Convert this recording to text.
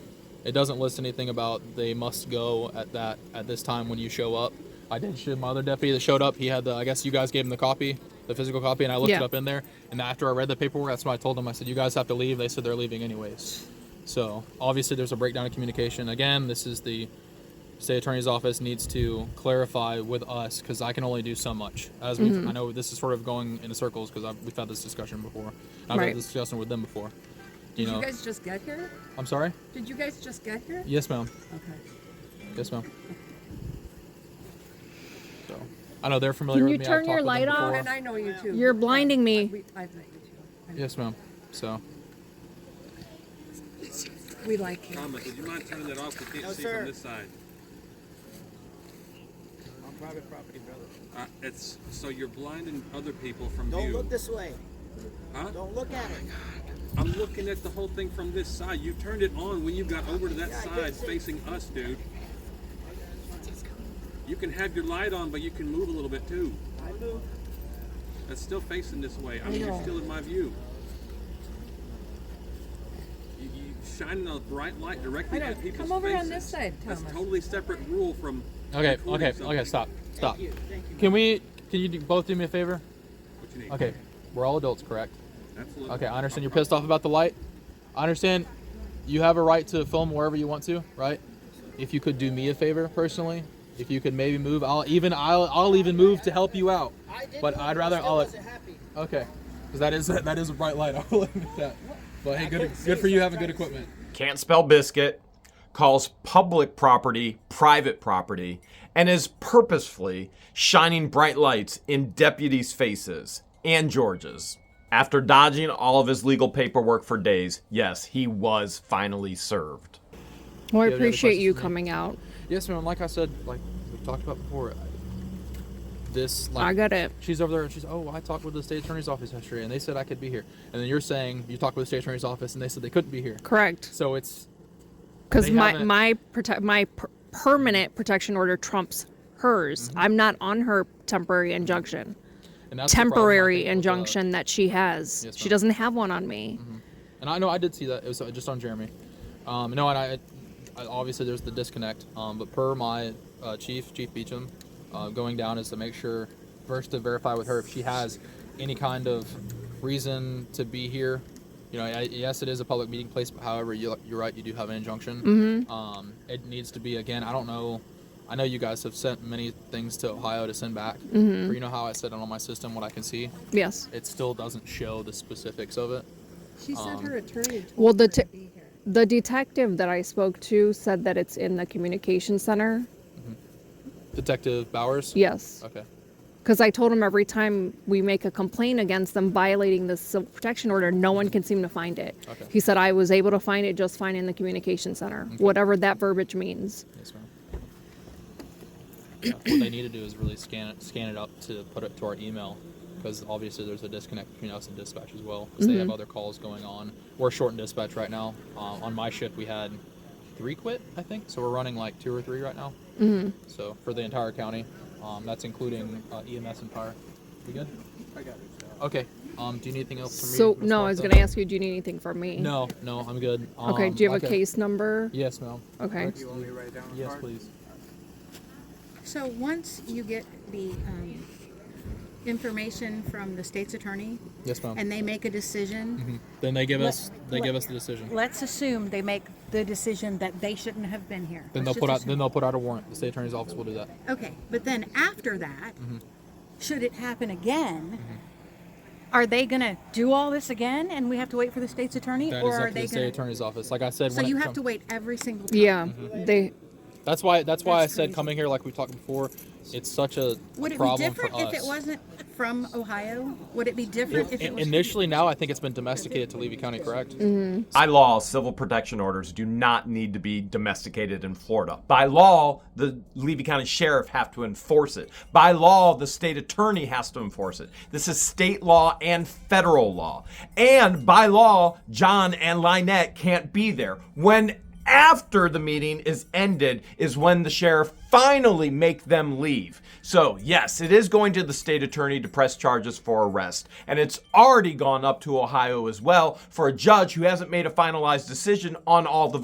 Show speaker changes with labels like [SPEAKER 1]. [SPEAKER 1] It doesn't list anything about they must go at that at this time when you show up. I did show my other deputy that showed up. He had the I guess you guys gave him the copy, the physical copy, and I looked it
[SPEAKER 2] Yeah.
[SPEAKER 1] up in there. And after I read the paperwork, that's when I told them I said you guys have to leave. They said they're leaving anyways. So obviously there's a breakdown in communication. Again, this is the state attorney's office needs to clarify with us because I can only do so much. As we,
[SPEAKER 2] Mm-hmm.
[SPEAKER 1] have I know this is sort of going in circles because we've had this discussion before. I've
[SPEAKER 2] Right.
[SPEAKER 1] had this discussion with them before. You
[SPEAKER 3] Did
[SPEAKER 1] know,
[SPEAKER 3] you guys just get here?
[SPEAKER 1] I'm sorry.
[SPEAKER 3] Did you guys just get here?
[SPEAKER 1] Yes, ma'am.
[SPEAKER 3] Okay.
[SPEAKER 1] Yes, ma'am. So I know they're familiar
[SPEAKER 2] Can
[SPEAKER 1] with
[SPEAKER 2] you
[SPEAKER 1] me. I've
[SPEAKER 2] turn
[SPEAKER 1] talked
[SPEAKER 2] your
[SPEAKER 1] with them
[SPEAKER 2] light
[SPEAKER 1] before.
[SPEAKER 2] off?
[SPEAKER 3] Oh, And I know you too.
[SPEAKER 2] You're blinding
[SPEAKER 3] I-
[SPEAKER 2] me.
[SPEAKER 3] we- I've met you too. I-
[SPEAKER 1] Yes, ma'am. So
[SPEAKER 3] We like you.
[SPEAKER 4] Thomas, would you mind turning that off? We
[SPEAKER 5] No,
[SPEAKER 4] can't see
[SPEAKER 5] sir.
[SPEAKER 4] from this side.
[SPEAKER 5] On private property, brother.
[SPEAKER 4] Uh, it's, so you're blinding other people from
[SPEAKER 5] Don't
[SPEAKER 4] view.
[SPEAKER 5] look this way.
[SPEAKER 4] Huh?
[SPEAKER 5] Don't look at it.
[SPEAKER 4] I'm looking at the whole thing from this side. You turned it on when you got over to that
[SPEAKER 5] Yeah, I did
[SPEAKER 4] side
[SPEAKER 5] see.
[SPEAKER 4] facing us, dude. You can have your light on, but you can move a little bit too.
[SPEAKER 5] I moved.
[SPEAKER 4] That's still facing this way. I mean, you're still in my view. You, you shining a bright light
[SPEAKER 3] I
[SPEAKER 4] directly
[SPEAKER 3] know.
[SPEAKER 4] at people's
[SPEAKER 3] Come over on
[SPEAKER 4] faces.
[SPEAKER 3] this side,
[SPEAKER 4] That's
[SPEAKER 3] Thomas.
[SPEAKER 4] totally separate rule from.
[SPEAKER 1] okay,
[SPEAKER 4] recording
[SPEAKER 1] okay, okay.
[SPEAKER 4] something.
[SPEAKER 1] Stop, stop.
[SPEAKER 5] Thank you. Thank you.
[SPEAKER 1] Can we? Can you do, both do me a favor?
[SPEAKER 4] What you need.
[SPEAKER 1] Okay, we're all adults, correct?
[SPEAKER 4] Absolutely.
[SPEAKER 1] Okay, I understand you're pissed off about the light. I understand you have a right to film wherever you want to, right? If you could do me a favor personally, if you could maybe move, I'll even I'll, I'll even move to help you out.
[SPEAKER 5] I did
[SPEAKER 1] But
[SPEAKER 5] look,
[SPEAKER 1] I'd rather
[SPEAKER 5] I still
[SPEAKER 1] I'll-
[SPEAKER 5] wasn't happy.
[SPEAKER 1] Okay, because that is that is a bright light. I will admit that. But hey, good
[SPEAKER 5] couldn't see,
[SPEAKER 1] good for you
[SPEAKER 5] so I'm
[SPEAKER 1] having good
[SPEAKER 5] trying to see.
[SPEAKER 1] equipment.
[SPEAKER 6] can't spell biscuit, calls public property private property, and is purposefully shining bright lights in deputies' faces and George's. After dodging all of his legal paperwork for days, yes, he was finally served.
[SPEAKER 2] Well,
[SPEAKER 1] have any
[SPEAKER 2] I
[SPEAKER 1] other
[SPEAKER 2] appreciate
[SPEAKER 1] questions
[SPEAKER 2] you
[SPEAKER 1] for me?
[SPEAKER 2] coming out.
[SPEAKER 1] Yes, ma'am. Like I said, like we talked about before, I- this like
[SPEAKER 2] I got it.
[SPEAKER 1] She's over there and she's, oh, I talked with the state attorney's office yesterday and they said I could be here. And then you're saying you talked with the state attorney's office and they said they couldn't be here.
[SPEAKER 2] Correct.
[SPEAKER 1] So it's
[SPEAKER 2] Because
[SPEAKER 1] They
[SPEAKER 2] my
[SPEAKER 1] haven't-
[SPEAKER 2] my prote- my per- permanent protection order trumps hers. I'm not on her temporary injunction.
[SPEAKER 1] and Mm-hmm. that's the problem, I
[SPEAKER 2] Temporary
[SPEAKER 1] think, with uh, the-
[SPEAKER 2] injunction that she has.
[SPEAKER 1] Yes,
[SPEAKER 2] she
[SPEAKER 1] ma'am. Mm-hmm.
[SPEAKER 2] doesn't have one on me.
[SPEAKER 1] and I know I did see that. It was uh, just on Jeremy. Um, no, and I, I obviously there's the disconnect. Um, but per my uh, chief, Chief Beecham, uh, going down is to make sure first to verify with her if she has any kind of reason to be here. You know, I, yes, it is a public meeting place, but however, you, you're right, you do have an injunction. Um, it needs to be again. I don't know. I know you guys have sent many things to Ohio to send back. But you know how I said it on my system, what I can see,
[SPEAKER 2] Yes.
[SPEAKER 1] it still doesn't show the specifics of it.
[SPEAKER 3] She
[SPEAKER 1] Um,
[SPEAKER 3] sent her attorney and told
[SPEAKER 2] Well, the
[SPEAKER 3] her to
[SPEAKER 2] t-
[SPEAKER 3] be here.
[SPEAKER 2] The detective that I spoke to said that it's in the communication center.
[SPEAKER 1] Detective Bowers.
[SPEAKER 2] Yes.
[SPEAKER 1] Okay.
[SPEAKER 2] Because I told him every time we make a complaint against them violating the civil protection order, no one can seem to find it.
[SPEAKER 1] Okay.
[SPEAKER 2] He said, I was able to find it just fine in the communication center, whatever that verbiage means.
[SPEAKER 1] Yes, ma'am. Yeah, what they need to do is really scan it, scan it up to put it to our email, because obviously there's a disconnect between us and dispatch as well, because they
[SPEAKER 2] Mm-hmm.
[SPEAKER 1] have other calls going on. We're short in dispatch right now. Um, on my shift, we had three quit, I think, so we're running like two or three right now. Mm-hmm. So for the entire county, um, that's including uh, EMS and fire. We good?
[SPEAKER 5] I got it.
[SPEAKER 1] Okay. Um, do you need anything else from me?
[SPEAKER 2] So,
[SPEAKER 1] Ms.
[SPEAKER 2] no, I was
[SPEAKER 1] Martha?
[SPEAKER 2] going to ask you, do you need anything from me?
[SPEAKER 1] No, no, I'm good.
[SPEAKER 2] Okay,
[SPEAKER 1] Um,
[SPEAKER 2] do you have
[SPEAKER 1] like
[SPEAKER 2] a case number?
[SPEAKER 1] Yes, ma'am.
[SPEAKER 2] Okay.
[SPEAKER 5] Do you want me to write it down? on the
[SPEAKER 1] Yes,
[SPEAKER 5] card?
[SPEAKER 1] please.
[SPEAKER 7] So once you get the um, information from the state's attorney
[SPEAKER 1] Yes, ma'am.
[SPEAKER 7] and they make a decision,
[SPEAKER 1] Then they give
[SPEAKER 7] Let-
[SPEAKER 1] us they give
[SPEAKER 7] let-
[SPEAKER 1] us the decision.
[SPEAKER 7] let's assume they make the decision that they shouldn't have been here.
[SPEAKER 1] Then they'll
[SPEAKER 7] Let's
[SPEAKER 1] put out
[SPEAKER 7] just
[SPEAKER 1] then they'll put out a warrant. The state attorney's office will do that.
[SPEAKER 7] assume- Okay, but then after that,
[SPEAKER 1] Mm-hmm.
[SPEAKER 7] should it happen again,
[SPEAKER 1] Mm-hmm.
[SPEAKER 7] are they gonna do all this again and we have to wait for the state's attorney?
[SPEAKER 1] That
[SPEAKER 7] Or
[SPEAKER 1] is up
[SPEAKER 7] are
[SPEAKER 1] to the
[SPEAKER 7] they
[SPEAKER 1] state
[SPEAKER 7] gonna?
[SPEAKER 1] attorney's office. Like I said,
[SPEAKER 7] So
[SPEAKER 1] when
[SPEAKER 7] you
[SPEAKER 1] it
[SPEAKER 7] have
[SPEAKER 1] come-
[SPEAKER 7] to wait every single time?
[SPEAKER 2] Yeah.
[SPEAKER 1] Mm-hmm.
[SPEAKER 2] They.
[SPEAKER 1] That's why that's why
[SPEAKER 7] That's
[SPEAKER 1] I said
[SPEAKER 7] crazy.
[SPEAKER 1] coming here like we talked before. It's such a
[SPEAKER 7] Would it be
[SPEAKER 1] problem
[SPEAKER 7] different
[SPEAKER 1] for us.
[SPEAKER 7] if it wasn't from Ohio? Would it be different if
[SPEAKER 1] In-
[SPEAKER 7] it was? Mm-hmm.
[SPEAKER 1] initially, now I think it's been domesticated to Levy County, correct?
[SPEAKER 6] By law, civil protection orders do not need to be domesticated in Florida. By law, the Levy County Sheriff have to enforce it. By law, the state attorney has to enforce it. This is state law and federal law. And by law, John and Lynette can't be there. When after the meeting is ended is when the sheriff finally make them leave. So, yes, it is going to the state attorney to press charges for arrest. And it's already gone up to Ohio as well for a judge who hasn't made a finalized decision on all the